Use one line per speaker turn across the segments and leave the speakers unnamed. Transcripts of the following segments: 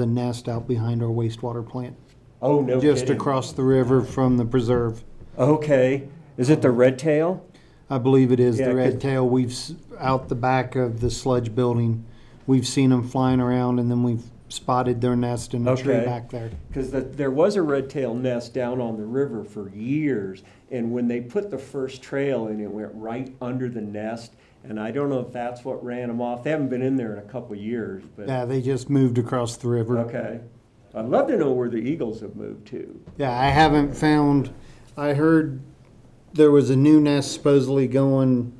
the nest out behind our wastewater plant,
Oh, no
just
kidding.
across the river from the preserve.
Okay, is it the red tail?
I believe it is
Yeah,
the
'cause-
red tail. We've, s- out the back of the sledge building, we've seen them flying around and then we've spotted their nest in a tree
Okay.
back there.
Because the, there was a red tail nest down on the river for years, and when they put the first trail in, it went right under the nest. And I don't know if that's what ran them off. They haven't been in there in a couple of years, but
Yeah, they just moved across the river.
okay. I'd love to know where the eagles have moved to.
Yeah, I haven't found, I heard there was a new nest supposedly going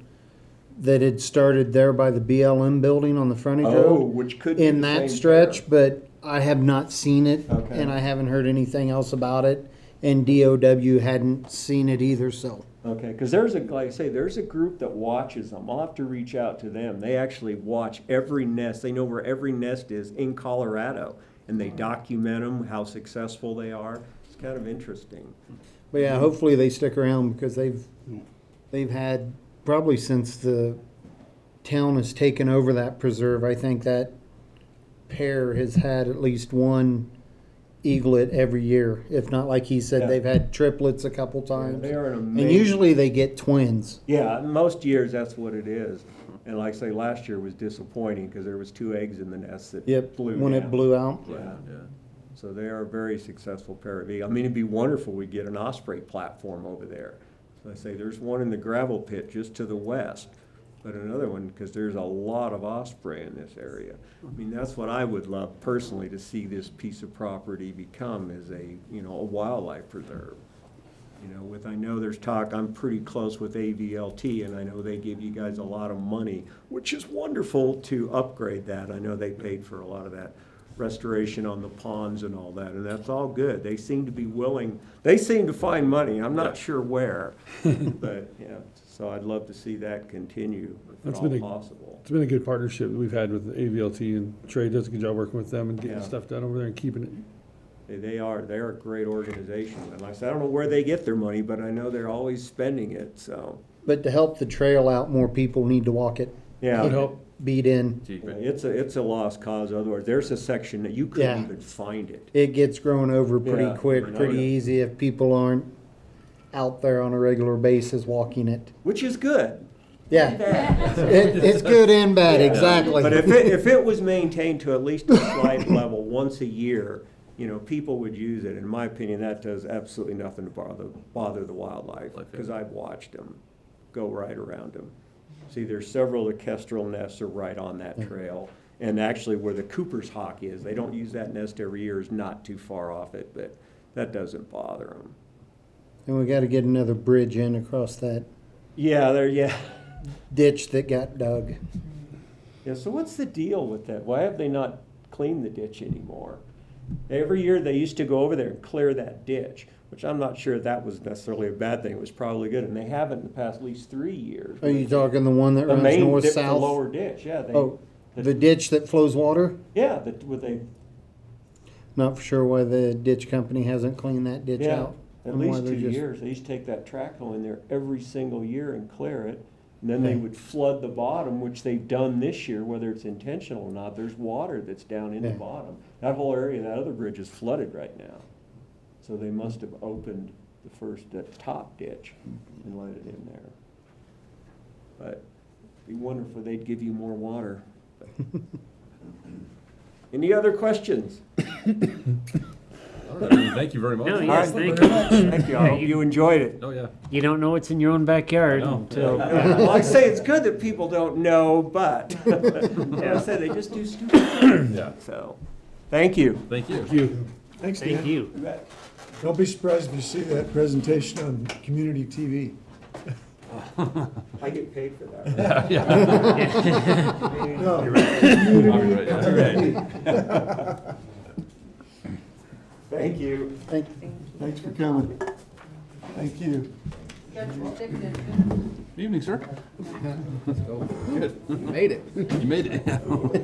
that had started there by the BLM building on the frontage
Oh,
road.
which could be
in
the same
that stretch,
pair.
but I have not seen it,
Okay.
and I haven't heard anything else about it, and DOW hadn't seen it either, so.
Okay, because there's a like I say, there's a group that watches them. I'll have to reach out to them. They actually watch every nest. They know where every nest is in Colorado, and they document them how successful they are. It's kind of interesting.
But yeah,
Mm-hmm.
hopefully they stick around, because they've, they've had, probably since the town has taken over that preserve, I think that pair has had at least one eaglet every year, if not, like he
Yeah.
said, they've had triplets a couple times.
They are an amazing.
And usually they get twins.
yeah, Uh, most years that's what it is. And like I say, last year was disappointing because there was two eggs in the nest that
Yep,
blew.
when
down.
it blew out.
Yeah. So they are a very successful pair of eagles. I mean, it'd be wonderful we get an osprey platform over there. So I say there's one in the gravel pit just to the west, but another one because there's a lot of osprey in this area. I mean, that's what I would love personally to see this piece of property become is a you know a wildlife preserve. You know, with I know there's talk. I'm pretty close with AVLT, and I know they give you guys a lot of money, which is wonderful to upgrade that. I know they paid for a lot of that restoration on the ponds and all that, and that's all good. They seem to be willing, they seem to find money, I'm not sure where. But, yeah, so I'd love to see that continue if
That's
at all
been a-
possible.
It's been a good partnership that we've had with AVLT and Trey does a good job working with them and getting
Yeah.
stuff done over there and keeping it.
They- They are, they're a great organization, and like I said, I don't know where they get their money, but I know they're always spending it, so,
But to help the trail out, more people need to walk it.
yeah.
Would help.
Beat in.
Keep it.
It's a, it's a lost cause, otherwise, there's a section that you couldn't
Yeah.
even find it.
It gets grown over pretty
Yeah, I
quick,
know
pretty
that.
easy if people aren't out there on a regular basis walking it.
Which is good.
Yeah, it, it's good and bad,
Yeah.
exactly.
But if it, if it was maintained to at least a slight level once a year, you know, people would use it. In my opinion, that does absolutely nothing to bother, bother the wildlife,
Like it.
because I've watched them go right around them. See, there's several of the kestrel nests are right on that trail, and actually where the Cooper's hawk is, they don't use that nest every year, is not too far off it, but that doesn't bother them.
And we gotta get another bridge in across that
Yeah, there, yeah.
ditch that got dug.
Yeah, so what's the deal with that? Why have they not cleaned the ditch anymore? Every year they used to go over there and clear that ditch, which I'm not sure that was necessarily a bad thing. It was probably good, and they haven't in the past at least three years.
Are Oh, you talking the one that
The
runs
main dip, the
north-south?
lower ditch, yeah, they,
Oh, the ditch that flows water?
yeah, that, with they,
Not for sure why the ditch company hasn't cleaned that ditch
yeah.
out.
At
and why
least
they're
two
just-
years, they used to take that track hole in there every single year and clear it. And then they would flood the bottom, which they've done this year, whether it's intentional or not, there's water that's down in the
Yeah.
bottom. That whole area, that other bridge is flooded right now. So they must have opened the first, that top ditch and let it in there. But it'd be wonderful, if they'd give you more water. Any other questions?
All right. Thank you very much.
No,
All
yes,
right.
thank you.
Thank you, I hope you enjoyed it.
Oh, yeah.
You don't know what's in your own backyard
No.
until.
Well, I say it's good that people don't know, but I say they just do stupid things.
Yeah.
So, thank you.
Thank you.
You,
Thanks,
Thank
Dan.
you.
Don't be surprised if you see that presentation on community TV.
I get paid for that.
No,
Copyright, yeah.
Thank you.
Thank-
thanks for coming. Thank you.
Good evening, sir. Good. You made it. You made it.